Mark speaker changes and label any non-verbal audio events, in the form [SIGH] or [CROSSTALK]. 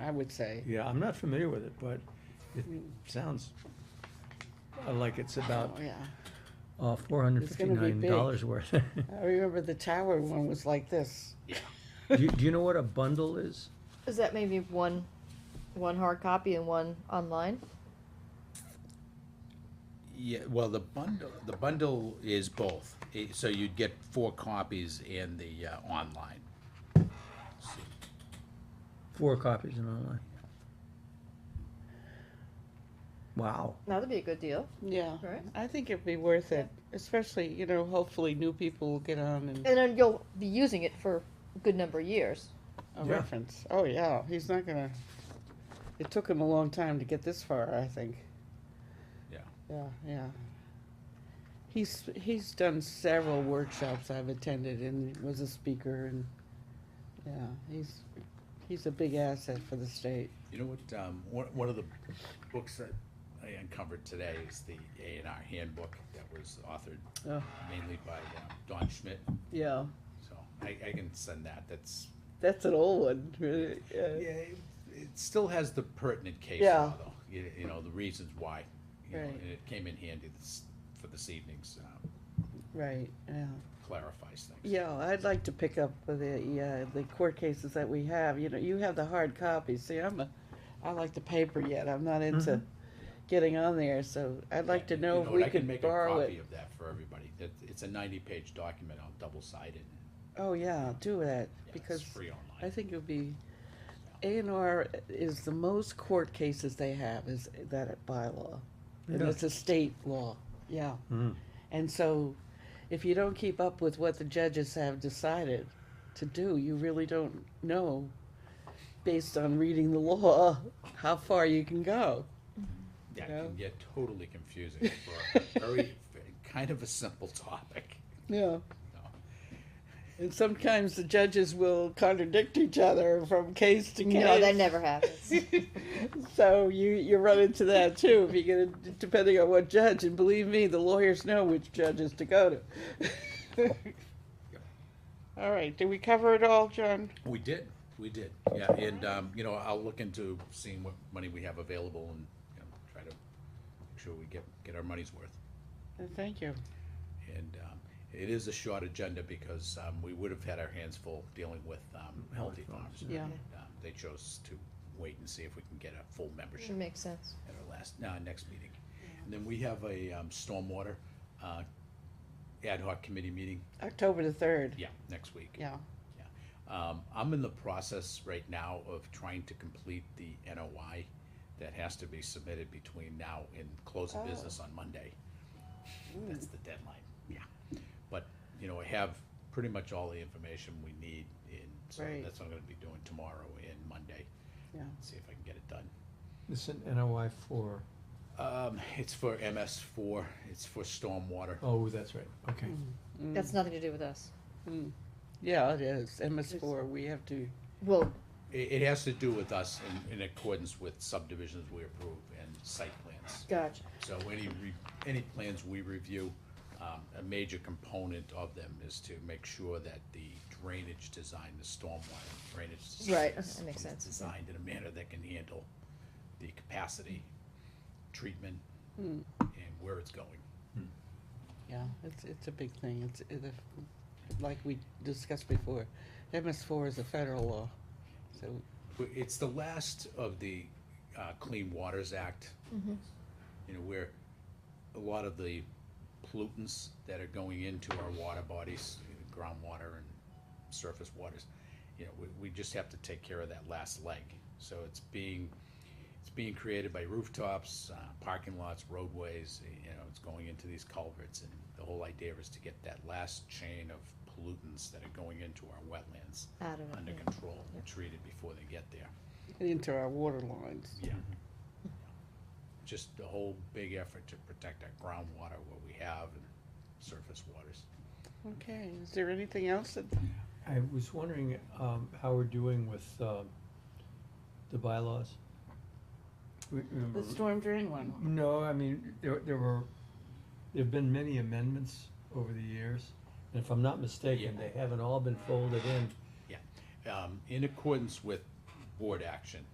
Speaker 1: I would say.
Speaker 2: Yeah, I'm not familiar with it, but it sounds uh, like it's about
Speaker 1: Oh, Yeah,
Speaker 2: uh, four hundred and
Speaker 1: It's gonna be
Speaker 2: fifty-nine
Speaker 1: big.
Speaker 2: dollars worth. [LAUGHS]
Speaker 1: I remember the tower one was like this.
Speaker 2: Do you, do you know what a bundle is?
Speaker 3: Is that maybe one, one hard copy and one online?
Speaker 4: Yeah, well, the bundle, the bundle is both, Eh, so you'd get four copies and the uh, online.
Speaker 2: Four copies and online. Wow.
Speaker 3: That'd be a good deal,
Speaker 1: Yeah,
Speaker 3: Right.
Speaker 1: I think it'd be worth it, especially, you know, hopefully new people will get on and
Speaker 3: and then you'll be using it for a good number of years.
Speaker 1: a
Speaker 2: Yeah.
Speaker 1: reference. Oh, yeah, he's not gonna, it took him a long time to get this far, I think.
Speaker 4: Yeah.
Speaker 1: Yeah, yeah. He's, he's done several workshops I've attended and was a speaker and, yeah, he's, he's a big asset for the state.
Speaker 4: You know what, um, one, one of the books that I uncovered today is the A and R handbook that was authored
Speaker 1: Oh,
Speaker 4: mainly by um, Don Schmidt,
Speaker 1: yeah,
Speaker 4: so I, I can send that, that's,
Speaker 1: that's an old one, really,
Speaker 4: yeah,
Speaker 1: yeah.
Speaker 4: it it still has the pertinent case
Speaker 1: Yeah.
Speaker 4: law, though. You, you know, the reasons why, you know,
Speaker 1: Right.
Speaker 4: and it came in handy this, for this evening's, um,
Speaker 1: right, yeah.
Speaker 4: clarifies things.
Speaker 1: Yeah, I'd like to pick up with the, uh, the court cases that we have, you know, you have the hard copies, see, I'm a, I like the paper yet, I'm not into
Speaker 2: Mhm.
Speaker 1: getting on there, so I'd like to
Speaker 4: Mm-hmm. You
Speaker 1: know if
Speaker 4: what,
Speaker 1: we
Speaker 4: I can
Speaker 1: could
Speaker 4: make
Speaker 1: borrow
Speaker 4: a copy
Speaker 1: it.
Speaker 4: of that for everybody. That it's a ninety-page document. I'll double-sided. Yeah,
Speaker 1: Oh, yeah, do that,
Speaker 4: it's
Speaker 1: because
Speaker 4: free online.
Speaker 1: I think it'll be, A and R is the most court cases they have, is that bylaw. And
Speaker 2: Yeah.
Speaker 1: it's a state law, yeah.
Speaker 2: Mm.
Speaker 1: And so, if you don't keep up with what the judges have decided to do, you really don't know, based on reading the law, how far you can go.
Speaker 4: yeah, it
Speaker 1: you know.
Speaker 4: can get totally
Speaker 1: [LAUGHS]
Speaker 4: confusing for a very kind of a simple topic.
Speaker 1: Yeah.
Speaker 4: No.
Speaker 1: And sometimes the judges will contradict each other from case to case.
Speaker 3: No, that never happens.
Speaker 1: [LAUGHS] so you you run into that too if you're gonna depending on what judge and believe me the lawyers know which judges to go to [LAUGHS] all right did we cover it all john
Speaker 4: We did, we did. Yeah, and um, you know, I'll look into seeing what money we have available and you know, try to make sure we get get our money's worth.
Speaker 1: Uh, thank you
Speaker 4: And um, it is a short agenda because um, we would have had our hands full dealing with um, healthy farms.
Speaker 1: yeah.
Speaker 4: Um, They chose to wait and see if we can get a full membership.
Speaker 3: Should make sense.
Speaker 4: at our last, uh, next meeting. And then we have a, um, stormwater, uh, ad hoc committee meeting,
Speaker 1: october the 3rd
Speaker 4: yeah, next week.
Speaker 1: yeah
Speaker 4: Yeah. Um, I'm in the process right now of trying to complete the NOI that has to be submitted between now and close of business
Speaker 1: Oh.
Speaker 4: on Monday.
Speaker 1: Hmm.
Speaker 4: That's the deadline, yeah. But, you know, I have pretty much all the information we need, and so
Speaker 1: Right.
Speaker 4: that's what I'm gonna be doing tomorrow and Monday,
Speaker 1: yeah
Speaker 4: see if I can get it done.
Speaker 2: This is an NOI for,
Speaker 4: Um, it's for MS four, it's for stormwater.
Speaker 2: oh, that's right, okay.
Speaker 1: Mm.
Speaker 3: That's nothing to do with us.
Speaker 1: yeah it is ms4 we have to
Speaker 3: Well,
Speaker 4: It, it has to do with us in, in accordance with subdivisions we approve and site plans.
Speaker 3: gotcha.
Speaker 4: So any, re- any plans we review, um, a major component of them is to make sure that the drainage design, the stormwater drainage. design
Speaker 3: Right,
Speaker 4: is-
Speaker 3: that makes
Speaker 4: is
Speaker 3: sense.
Speaker 4: Designed in a manner that can handle the capacity, treatment,
Speaker 3: Hmm.
Speaker 4: and where it's going.
Speaker 1: yeah it's it's a big thing it's it, like we discussed before ms4 is a federal law so
Speaker 4: Well, It's the last of the uh, Clean Waters Act, you know, where a lot of the pollutants that are going into our water bodies, groundwater and surface waters, you know, we, we just have to take care of that last leg. So it's being, it's being created by rooftops, uh, parking lots, roadways, you know, it's going into these culverts. And the whole idea is to get that last chain of pollutants that are going into our wetlands
Speaker 3: I don't know.
Speaker 4: under
Speaker 3: yeah.
Speaker 4: control and treated before they get there.
Speaker 1: into our water lines
Speaker 4: Yeah. Just a whole big effort to protect our groundwater, what we have, and surface waters.
Speaker 1: okay is there anything else that
Speaker 2: I was wondering, um, how we're doing with, uh, the bylaws? We- remember-
Speaker 1: the storm drain one
Speaker 2: No, I mean, there, there were, there've been many amendments over the years, and if I'm not mistaken, they haven't all been folded in
Speaker 4: Um, in accordance with board action,